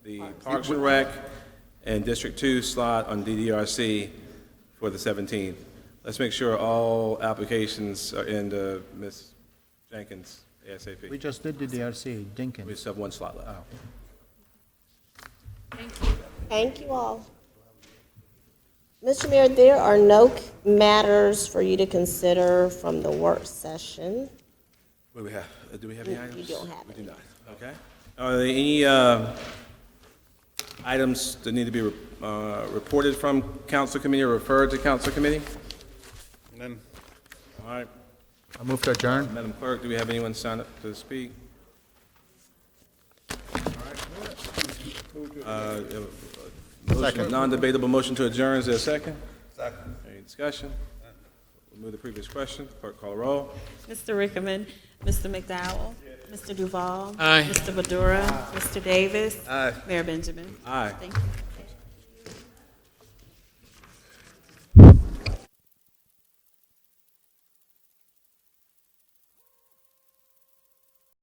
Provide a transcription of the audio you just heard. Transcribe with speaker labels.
Speaker 1: Parks and Rec and District Two slot on DDRC for the 17th. Let's make sure all applications are in to Ms. Jenkins
Speaker 2: We
Speaker 1: ASAP.
Speaker 2: just did the DRC,
Speaker 1: We
Speaker 2: Dinkins.
Speaker 1: just have one slot left.
Speaker 3: Thank you all. Mr. Mayor, there are no c- matters for you to consider from the work session.
Speaker 1: What do we have? Uh, Do we have any items?
Speaker 3: don't have
Speaker 1: We do not, okay. Are there any uh, items that need to be uh, reported from council committee or referred to council committee?
Speaker 4: None.
Speaker 1: All right,
Speaker 2: I move to adjourn.
Speaker 1: Madam Clerk, do we have anyone sign up to speak? Uh, All right. Uh, Motion, non-debatable motion to adjourn, is there a second? Second. Any discussion? Remove the previous question, clerk call a roll.
Speaker 5: Mr. Rickman, Mr. McDowell, Mr. Duval. Mr. Badura, Mr. Davis. Mayor Benjamin.
Speaker 1: Aye.
Speaker 5: Thank you.